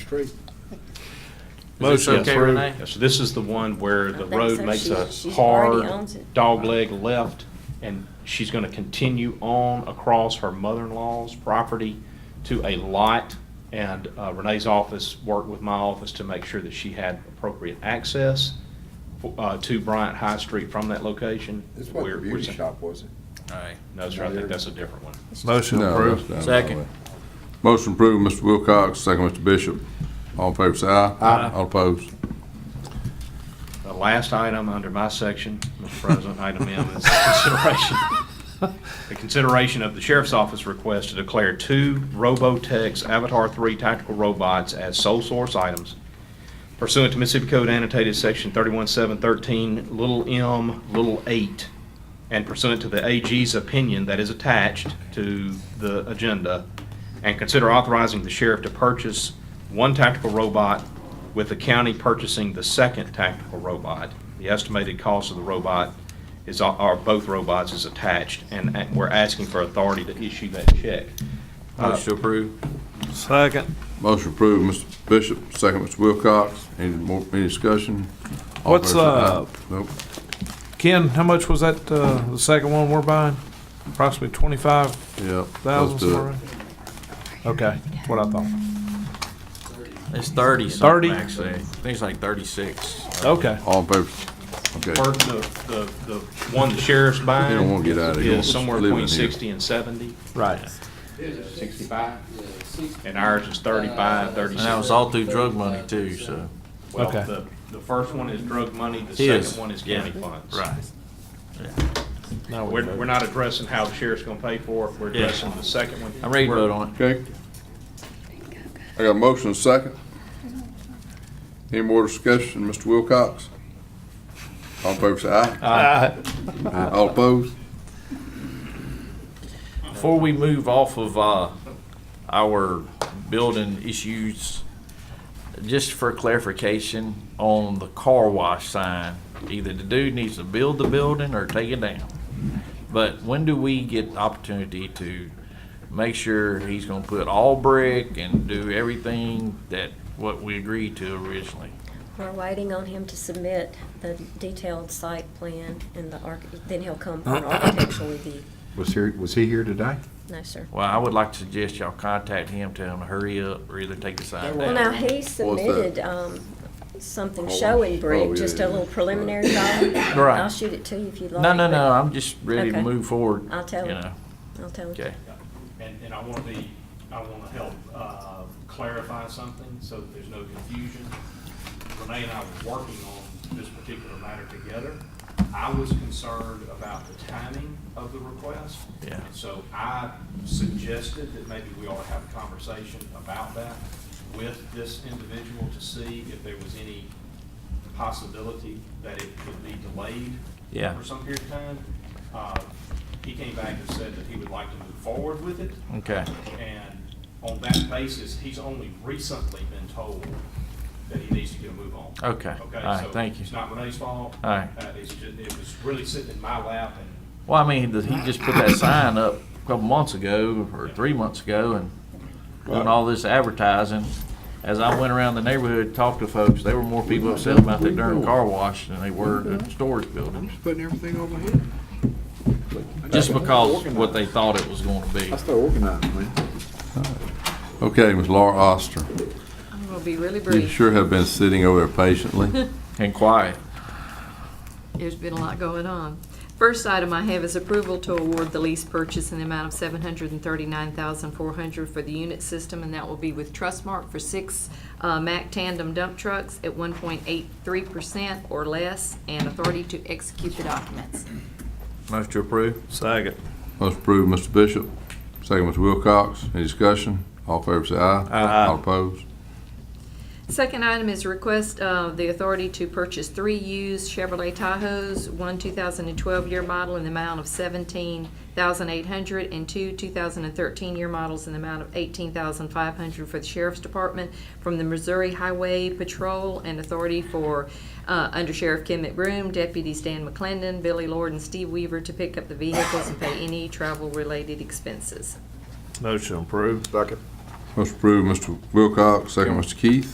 approved. Is this Motion okay, approved. Renee? Yes, this is the one where I the think road so. makes She- a she already hard owns it. dogleg left, and she's gonna continue on across her mother-in-law's property to a lot. And uh, Renee's office worked with my office to make sure that she had appropriate access uh, to Bryant High Street from that location. This wasn't We're- a we're beauty saying- shop, was it? All right. No, sir, I think that's a different one. Motion No, approved. Oh, that's not Second. right. Motion approved, Mr. Wilcox, second, Mr. Bishop. All in favor, say aye. Aye. All opposed. The last item under my section, Mr. President, item M is consideration, the consideration of the sheriff's office request to declare two Robotex Avatar 3 tactical robots as sole source items pursuant to Mississippi Code annotated section 31713, little m, little 8, and pursuant to the AG's opinion that is attached to the agenda, and consider authorizing the sheriff to purchase one tactical robot with the county purchasing the second tactical robot. The estimated cost of the robot is, uh, are both robots is attached, and and we're asking for authority to issue that check. Motion approved. Second. Motion approved, Mr. Bishop, second, Mr. Wilcox. Any more, any discussion? All in favor, What's, say aye. uh, Nope. Ken, how much was that, uh, the second one we're buying? Approximately twenty-five Yep. thousand, let's do it. somewhere? Okay, that's what I thought. It's thirty Thirty? something, actually. I think it's like thirty-six. Okay. All in favor? Okay. First, the, the, the one the sheriff's buying. They don't wanna get out of here. Is somewhere Living between here. sixty and seventy, Right. sixty-five, and ours is thirty-five, And thirty-six. Uh, that was all through drug money too, so. Well, Okay. the, the first one is drug money, the Yes. second one is county Yeah. funds. Now we We're, we're vote. not addressing how the sheriff's gonna pay for it, we're Yeah. addressing the second one. I'm ready to vote on it. Okay. I got a motion, and a second. Any more discussion, Mr. Wilcox? All in favor, say aye. Uh, All opposed? Before we move off of, uh, our building issues, just for clarification on the car wash sign, either the dude needs to build the building or take it down. But when do we get opportunity to make sure he's gonna put all brick and do everything that, what we agreed to originally? We're waiting on him to submit the detailed site plan and the arch, then he'll come for an architectural review. Was here, was he here today? No, sir. Well, I would like to suggest y'all contact him, tell him to hurry up or either take the sign Well, now, down. he What was that? submitted, um, something Oh, showing oh, brick, yeah, just yeah, a little yeah. preliminary drawing. Right. I'll shoot it to you if you'd like. No, no, no, but I'm just ready to Okay. move forward. I'll tell you him. know. I'll tell him. Okay. And, and I wanna be, I wanna help, uh, clarify something so that there's no confusion. Renee and I were working on this particular matter together. I was concerned about the timing of the request. Yeah. And So I suggested that maybe we ought to have a conversation about that with this individual to see if there was any possibility that it could be delayed Yeah. for some period of time. Uh, He came back and said that he would like to move forward with it. Okay. And on that basis, he's only recently been told that he needs to get a move on. Okay. All right, Okay, so thank you. it's not Renee's fault. All right. Uh, It's just, it was really sitting in my lap and Well, I mean, the- he just put that sign up a couple months ago or three months ago and doing all this advertising. As I went around the neighborhood, talked to folks, there were more people upset about that darn car wash than they were the storage building. Just putting everything over here. Just because what they thought it was gonna be. I start organizing, man. Okay, Ms. Laura Oster, I'm gonna be really you brief. sure have been sitting over there patiently. And quiet. There's been a lot going on. First item I have is approval to award the lease purchase in the amount of seven hundred and thirty-nine thousand four hundred for the unit system, and that will be with Trustmark for six, uh, Mack tandem dump trucks at one point eight three percent or less, and authority to execute the documents. Motion to approve? Second. Most approved, Mr. Bishop. Second, Mr. Wilcox. Any discussion? All in favor, say aye. Aye. All opposed? Second item is request of the authority to purchase three used Chevrolet Tahoes, one 2012 year model in the amount of 17,800 and two 2013 year models in the amount of 18,500 for the Sheriff's Department from the Missouri Highway Patrol and authority for uh, Under Sheriff Kim McBroom, Deputies Dan McClendon, Billy Lord, and Steve Weaver to pick up the vehicles and pay any travel-related expenses. Motion approved. Second. Motion approved, Mr. Wilcox, second, Mr. Keith.